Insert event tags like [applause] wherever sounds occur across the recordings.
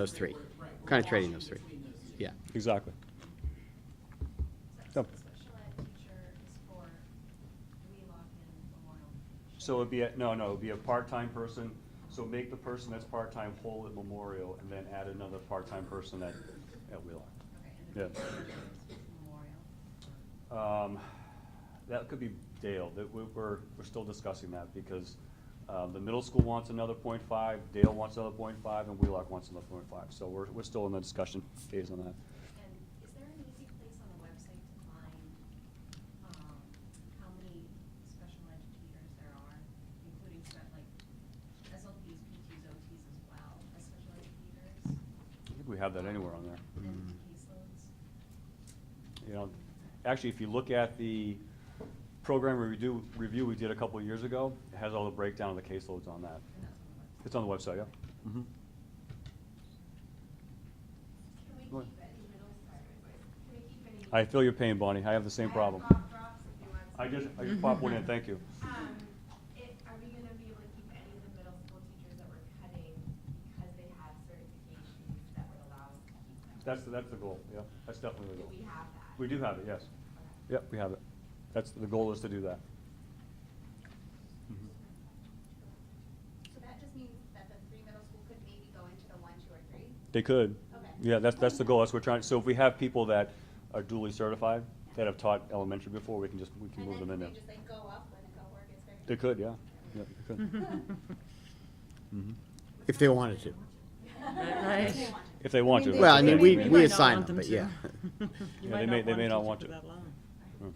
those three, kind of trading those three. Yeah. Exactly. So Yep. special ed teacher is for we lock in Memorial. So it'd be, a no, no, it'd be a part-time person, so make the person that's part-time whole at Memorial, and then add another part-time person at, at Wheelock. Okay, and Yeah. the teacher is Memorial. Um, That could be Dale, that we- we're, we're still discussing that, because uh, the middle school wants another point five, Dale wants another point five, and Wheelock wants another point five, so we're, we're still in the discussion phase on that. And is there an easy place on the website to find, um, how many special ed teachers there are, including spe- like SLPs, PTs, OTs as well, as special ed teachers? I think we have that anywhere on there. And Mm. caseloads? you know, actually, if you look at the program review, review we did a couple of years ago, it has all the breakdown of the caseloads on that. And that's on the website. It's on the website, yeah? Can we Go keep any middle, sorry, wait, can we keep any? I feel your pain, Bonnie, I have the same I have problem. cough drops if you want I just, some. I just popped one in, thank you. Um, it, are we gonna be able to keep any of the middle school teachers that we're cutting because they have certifications that would allow us to keep them? That's, that's the goal, yeah, that's definitely the Do goal. we have that? We do have it, yes. Okay. Yep, we have it. That's, the goal is to do that. Mhm. So that just means that the three middle school could maybe go into the one, two, or three? They could. Okay. Yeah, that's, that's the goal, that's what we're trying, so if we have people that are duly certified, that have taught elementary before, we can just, we can move them in there. And then could they just like go up when the cohort gets bigger? They could, yeah. Yeah, they could. Mm-hmm. Mhm. If they wanted to. Right. If they want to. Well, I that's mean, okay. we- might we not assign want them, but to. yeah. [laughs] You Yeah, might they may- they may not want teach it to. that long. Mm.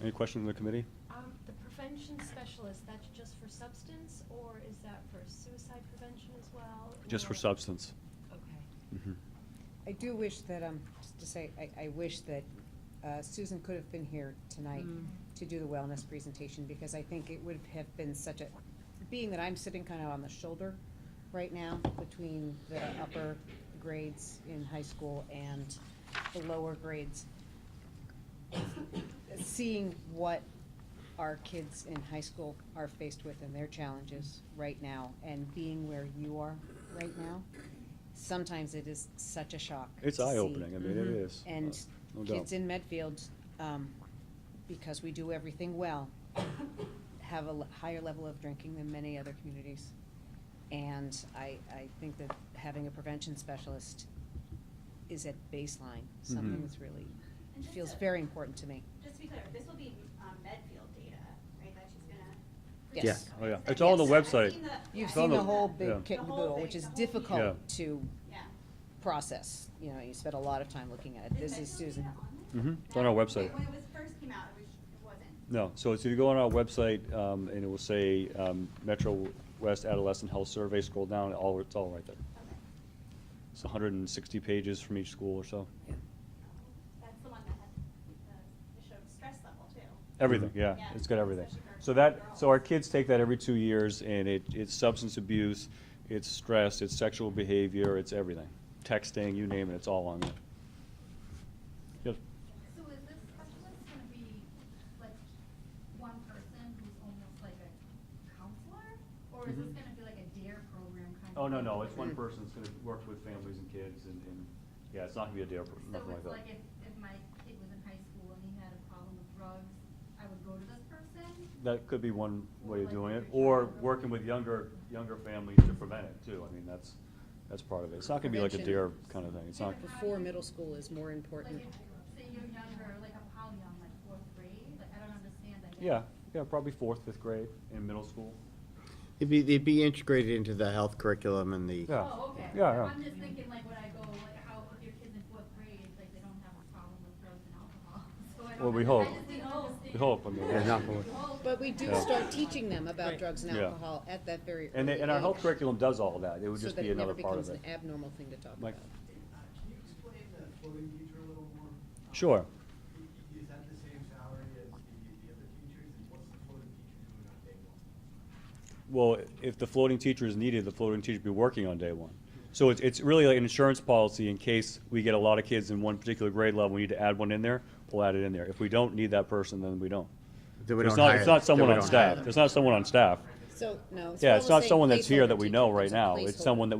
Any questions from the committee? Um, the prevention specialist, that's just for substance, or is that for suicide prevention as well? Just for or- substance. Okay. Mm-hmm. I do wish that, um, just to say, I, I wish that uh, Susan could have been here tonight Mm. to do the wellness presentation, because I think it would have been such a, being that I'm sitting kind of on the shoulder right now between the upper grades in high school and the lower grades, seeing what our kids in high school are faced with and their challenges right now, and being where you are right now, sometimes it is such a shock. It's to see. eye-opening, I mean, it Mhm. is. Uh, And no doubt. kids in Medfield, um, because we do everything well, have a l- higher level of drinking than many other communities. And I, I think that having a prevention specialist is at baseline, something Mhm. that's really, And just feels to- very important to me. Just to be clear, this will be um, Medfield data, right, that she's gonna. Yes. Yeah. Oh, yeah. Okay, It's all on the so I've website. seen the- yeah, You've I've seen the the- whole Yeah. big kit and The whole caboodle, thing, which is the whole Yeah. difficult to Yeah. process, you know, you spent a lot of time looking at it, this is Medfield Susan. data on there? Mhm. It's on our website. When it was first came out, it was, it wasn't. No, so it's, if you go on our website, um, and it will say, um, Metro West Adolescent Health Survey, scroll down, all, it's all right there. Okay. It's hundred and sixty pages from each school or so. That's the one that had, the- it showed stress level too. Everything, yeah, Yeah, it's got everything. especially for So that, girls. so our kids take that every two years, and it, it's substance abuse, it's stress, it's sexual behavior, it's everything. Texting, you name it, it's all on there. Yes, So is this specialist gonna be like one person who's almost like a counselor? Or is this Mm-hmm. gonna be like a DARE program kind of? Oh, no, thing no, where it's one they- person, it's gonna work with families and kids and, and, yeah, it's not gonna be a dare, So nothing like it's like that. if, if my kid was in high school and he had a problem with drugs, I would go to this person? That could be one way of Like doing it, every or child. working with younger, younger families to prevent it too, I mean, that's, that's part of it. It's not gonna be like a dare Prevention. kind of thing, it's not, Before middle school is more important. Like if, say you're younger, like I'm how young, like fourth grade, like I don't understand, I guess. yeah, yeah, probably fourth, fifth grade in middle school. It'd be, they'd be integrated into the health curriculum and the. Yeah. Oh, okay. Yeah, yeah. I'm just thinking like when I go, like how if your kids in fourth grade, like they don't have a problem with drugs and alcohol. [laughs] So I don't. Well, we I hope. just didn't understand. We hope, I mean. Yeah, not for- We hope. But we do Yeah. start teaching them about Right. drugs and Yeah. alcohol at that very And, they- early and our age, health curriculum does all that, it would just be another part of So that it it. never becomes an abnormal thing to talk Mike? about. Can you explain the floating teacher a little more? Um, Sure. i- i- Is that the same salary as the, the other teachers, and what's the floating teacher doing on day one? Well, if the floating teacher is needed, the floating teacher would be working on day one. So it's, it's really like an insurance policy in case we get a lot of kids in one particular grade level, we need to add one in there, we'll add it in there. If we don't need that person, then we don't. that we It's don't not, hire it's them, not that someone we on don't hire staff, it's not someone on staff. So, no. it's Yeah, what it's we're not saying, someone that's here placeholder that we teacher, know it's right a now, it's placeholder. someone that